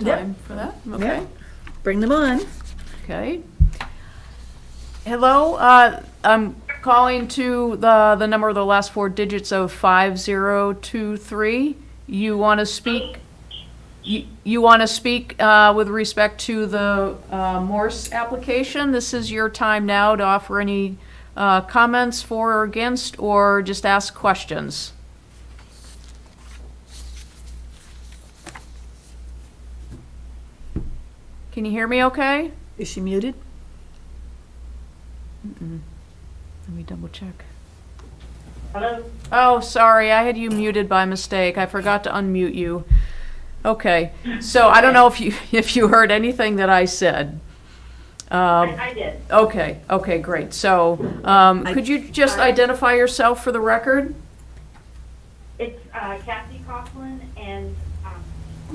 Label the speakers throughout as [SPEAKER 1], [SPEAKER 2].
[SPEAKER 1] Yep.
[SPEAKER 2] time for that?
[SPEAKER 1] Yeah.
[SPEAKER 2] Okay,
[SPEAKER 1] Bring them on.
[SPEAKER 2] okay. Hello, uh, I'm calling to the, the number of the last four digits of 5023. You want to speak, you, you want to speak uh, with respect to the uh, Morse application? This is your time now to offer any uh, comments for or against, or just ask questions. Can you hear me okay?
[SPEAKER 1] Is she muted?
[SPEAKER 2] Let me double check.
[SPEAKER 3] Hello?
[SPEAKER 2] Oh, sorry, I had you muted by mistake. I forgot to unmute you. Okay, so I don't know if you, if you heard anything that I said. Um,
[SPEAKER 3] I I did.
[SPEAKER 2] Okay, okay, great. So, um, could you just identify yourself for the record?
[SPEAKER 3] It's uh, Kathy Coughlin and um,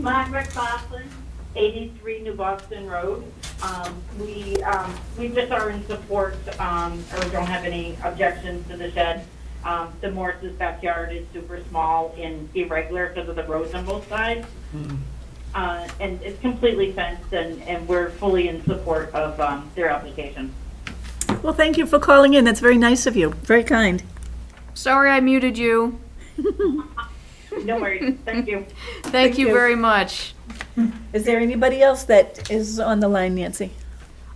[SPEAKER 3] Margaret Coughlin, 83 New Boston Road. Um, We, um, we just are in support, um, or don't have any objections to the shed. Um, The Morris's backyard is super small and irregular because of the roads on both sides. Uh, And it's completely fenced, and, and we're fully in support of um, their application.
[SPEAKER 1] Well, thank you for calling in. That's very nice of you. Very kind.
[SPEAKER 2] Sorry, I muted you.
[SPEAKER 3] No worries, thank you.
[SPEAKER 2] Thank you
[SPEAKER 1] you.
[SPEAKER 2] very much.
[SPEAKER 1] Is there anybody else that is on the line, Nancy?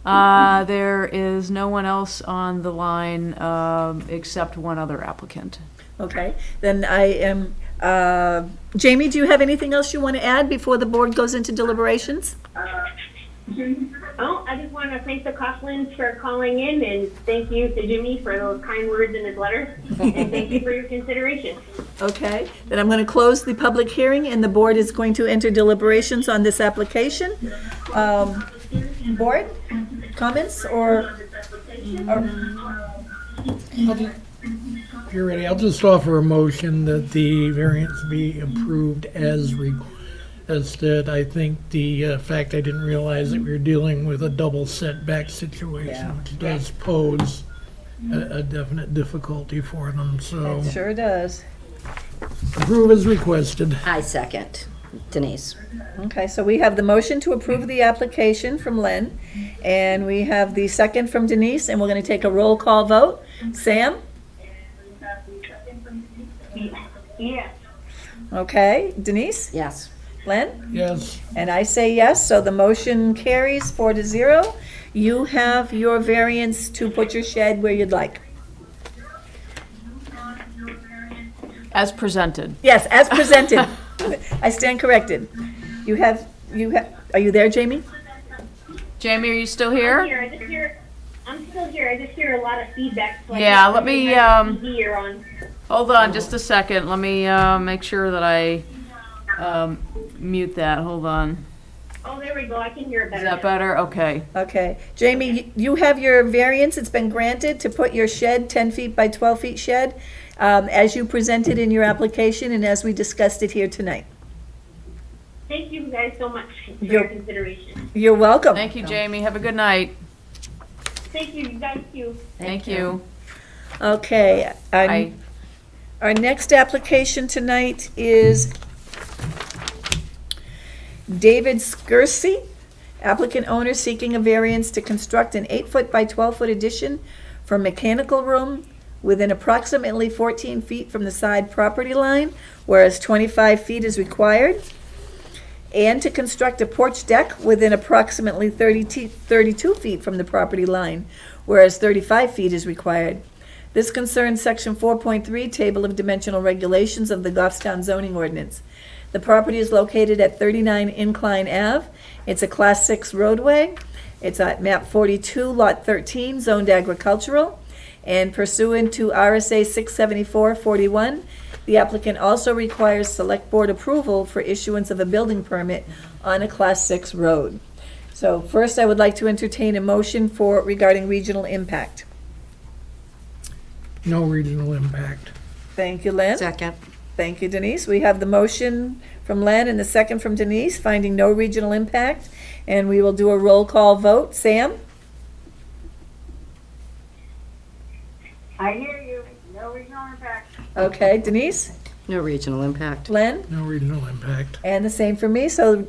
[SPEAKER 2] Uh, there is no one else on the line, um, except one other applicant.
[SPEAKER 1] Okay, then I am, uh, Jamie, do you have anything else you want to add before the board goes into deliberations?
[SPEAKER 4] Oh, I just want to thank the Coughlins for calling in, and thank you to Jimmy for those kind words in his letter, and thank you for your consideration.
[SPEAKER 1] Okay, then I'm going to close the public hearing, and the board is going to enter deliberations on this application. Um, Board, comments, or,
[SPEAKER 5] You're ready. I'll just offer a motion that the variance be approved as requested. I think the uh, fact I didn't realize that we were dealing with a double setback situation, which does pose a a definite difficulty for them, so
[SPEAKER 1] sure does.
[SPEAKER 5] approve as requested.
[SPEAKER 6] I second Denise.
[SPEAKER 1] Okay, so we have the motion to approve the application from Len, and we have the second from Denise, and we're going to take a roll call vote. Sam?
[SPEAKER 3] Yes.
[SPEAKER 1] Okay, Denise?
[SPEAKER 6] Yes.
[SPEAKER 1] Len?
[SPEAKER 5] Yes,
[SPEAKER 1] And I say yes, so the motion carries four to zero. You have your variance to put your shed where you'd like.
[SPEAKER 2] As presented.
[SPEAKER 1] Yes, as presented. I stand corrected. You have, you have, are you there, Jamie?
[SPEAKER 2] Jamie, are you still
[SPEAKER 4] I'm
[SPEAKER 2] here?
[SPEAKER 4] here, I just hear, I'm still here, I just hear a lot of feedback. so I
[SPEAKER 2] Yeah,
[SPEAKER 4] just-
[SPEAKER 2] let me,
[SPEAKER 4] I have
[SPEAKER 2] um,
[SPEAKER 4] TV or on.
[SPEAKER 2] Hold on just a second. Let me uh, make sure that I um, mute that. Hold on.
[SPEAKER 4] Oh, there we go, I can hear it
[SPEAKER 2] Is
[SPEAKER 4] better.
[SPEAKER 2] that better? Okay.
[SPEAKER 1] Okay. Jamie, you- you have your variance, it's been granted to put your shed, 10 feet by 12 feet shed, um, as you presented in your application and as we discussed it here tonight.
[SPEAKER 4] Thank you guys so much for
[SPEAKER 1] You're-
[SPEAKER 4] your consideration.
[SPEAKER 1] You're welcome.
[SPEAKER 2] Thank you, Jamie. Have a good night.
[SPEAKER 4] Thank you, you guys too.
[SPEAKER 2] Thank you.
[SPEAKER 1] Okay. I'm-
[SPEAKER 2] I,
[SPEAKER 1] Our next application tonight is David Skirsey, applicant owner seeking a variance to construct an eight-foot by twelve-foot addition for mechanical room within approximately fourteen feet from the side property line, whereas twenty-five feet is required, and to construct a porch deck within approximately 30 te- 32 feet from the property line, whereas thirty-five feet is required. This concerns section four point three, table of dimensional regulations of the Goffstown zoning ordinance. The property is located at thirty-nine Incline Ave. It's a class six roadway. It's at map forty-two, lot thirteen, zoned agricultural. And pursuant to RSA six seventy-four forty-one, the applicant also requires select board approval for issuance of a building permit on a class six road. So first, I would like to entertain a motion for regarding regional impact.
[SPEAKER 5] no regional impact.
[SPEAKER 1] Thank you, Lynn.
[SPEAKER 6] Second.
[SPEAKER 1] Thank you, Denise. We have the motion from Len and the second from Denise, finding no regional impact. And we will do a roll call vote. Sam?
[SPEAKER 3] I hear you. No regional impact.
[SPEAKER 1] Okay, Denise,
[SPEAKER 6] No regional impact.
[SPEAKER 1] Len,
[SPEAKER 5] No regional impact.
[SPEAKER 1] and the same for me. So